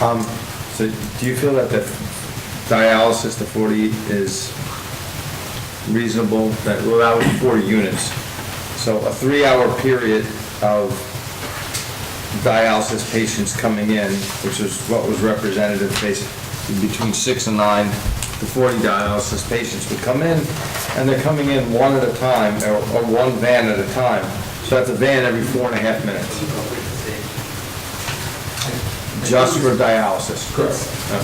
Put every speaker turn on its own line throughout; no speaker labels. Um, so do you feel that the dialysis, the forty is reasonable, that, well, that was forty units. So a three-hour period of dialysis patients coming in, which is what was representative, basically between six and nine, the forty dialysis patients would come in, and they're coming in one at a time, or, or one van at a time. So that's a van every four and a half minutes, just for dialysis. Yeah.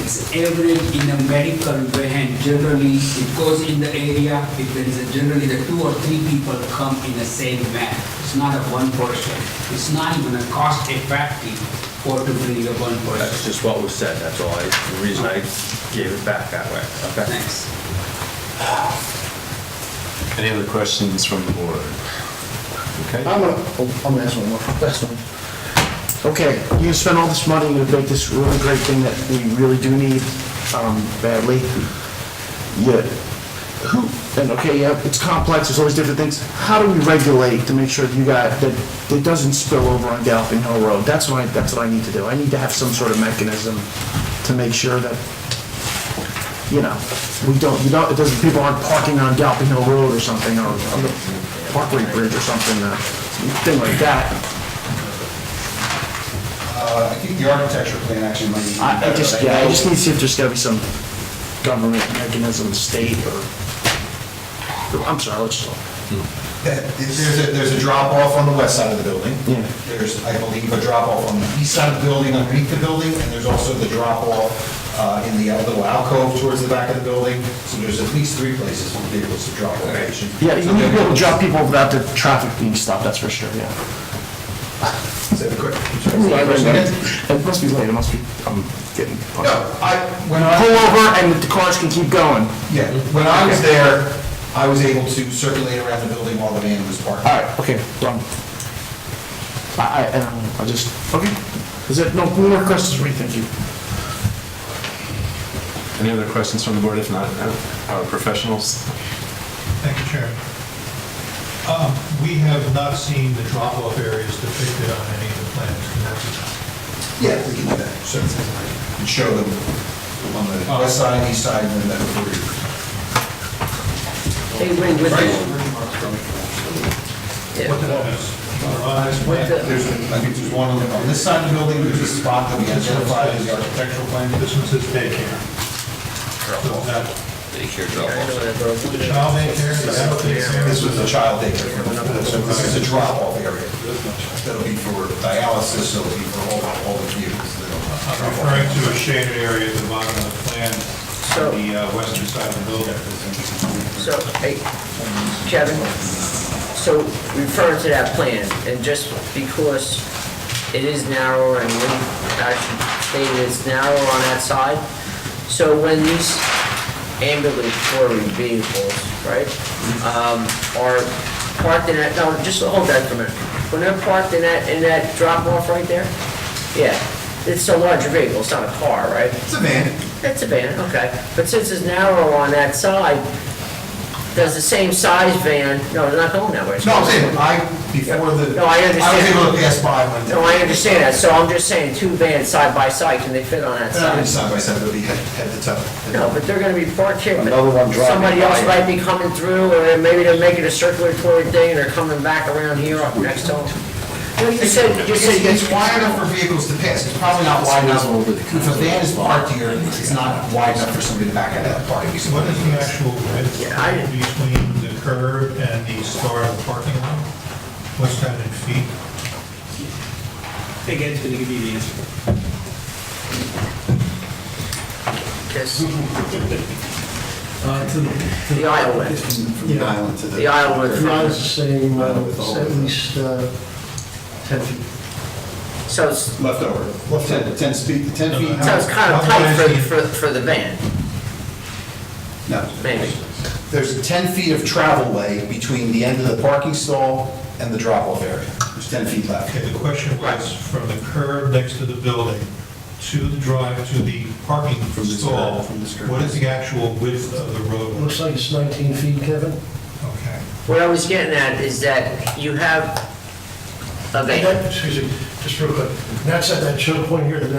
It's average in a medical van, generally it goes in the area, if there is a generally the two or three people come in the same van. It's not a one person. It's not even a cost effective for to bring a one
That's
person.
just what was said, that's all, I- the reason I gave it back that way, okay?
Thanks.
Any other questions from the board? Okay.
I'm gonna, oh, I'm gonna ask one more, last one. Okay, you spend all this money, you make this really great thing that we really do need, um, badly. Yet, who, and okay, yeah, it's complex, there's always different things. How do we regulate to make sure that you got, that it doesn't spill over on Galloping Hill Road? That's what I, that's what I need to do. I need to have some sort of mechanism to make sure that, you know, we don't, you don't, it doesn't, people aren't parking on Galloping Hill Road or something, or on the Parkway Bridge or something, uh, thing like that.
Uh, I think the architecture plan actually might be.
I, I just, yeah, I just need to see if there's gotta be some government mechanism, state or, I'm sorry, let's just,
There's a, there's a drop-off on the west side of the building.
Yeah.
There's, I believe, a drop-off on the east side of the building, underneath the building, and there's also the drop-off uh, in the little alcove towards the back of the building. So there's at least three places for vehicles to drop off.
yeah, you need to be able to drop people without the traffic being stopped, that's for sure, yeah.
Is that a quick?
It must be late, it must be, I'm getting.
No, I, when I.
Pull over and the cars can keep going.
Yeah, when I was there, I was able to circulate around the building while the van was parked.
All right, okay, wrong. I, I, I don't know, I just, okay, is it, no, no more questions, what do you think, you?
Any other questions from the board? If not, no. our professionals?
Thank you, Chairman. Um, We have not seen the drop-off areas depicted on any of the plans. and that's-
Yeah, we can do that. Sure. And show them on the west side, east side, and then the rear.
They went with it.
What the hell is- on this plan?
There's, I think there's one on the- on this side of the building, there's a spot that we identified as the architectural plan.
This one says daycare. So that- Child daycare, is that what they say?
This was a child daycare. So This is a drop-off area. That'll be for dialysis, so it'll be for all, all the vehicles that
I'm
are.
referring to a shaded area at the bottom of the plan, on the uh, western side of the building.
So, hey, Kevin, so referring to that plan, and just because it is narrower and we actually stated it's narrower on that side, so when these ambulatory vehicles, right, um, are parked in that, no, just hold that for a minute. When they're parked in that, in that drop-off right there, yeah, it's a larger vehicle, it's not a car, right?
It's a van.
It's a van, okay. But since it's narrow on that side, does the same size van, no, they're not going that way.
No, I'm saying, I, before the.
No, I
was
understand.
able to pass by when.
No, I understand that, so I'm just saying, two vans side by side, can they fit on that
Not really
side?
side by side, but we had, had the top.
No, but they're gonna be parked here, but
Another one driving
somebody else
by.
might be coming through, or maybe they're making a circulatory thing, and they're coming back around here up next to them. No, you said, you
It's,
said,
it's wide enough for vehicles to pass, it's probably not wide enough. If a van is parked here, it's not wide enough for somebody to back out of that parking.
What is the actual width
Yeah, I-
between the curb and the start of the parking lot? What's that in feet?
Again's gonna give you the answer.
yes,
Uh, to the-
the aisle width,
From the island to the.
the aisle width.
Not the same, uh, it's at least uh, 10 feet.
So it's,
Leftover, left ten, ten feet, ten feet.
so it's kind of tight for, for, for the van,
No,
maybe.
there's ten feet of travel way between the end of the parking stall and the drop-off area. There's ten feet left.
Okay, the question was from the curb next to the building to the drive, to the parking
From this
stall.
curb, from this curb.
What is the actual width of the road?
Looks like it's 19 feet, Kevin.
Okay.
What I was getting at is that you have a
And
van.
that- Excuse me, just real quick. That's at that choke point here, the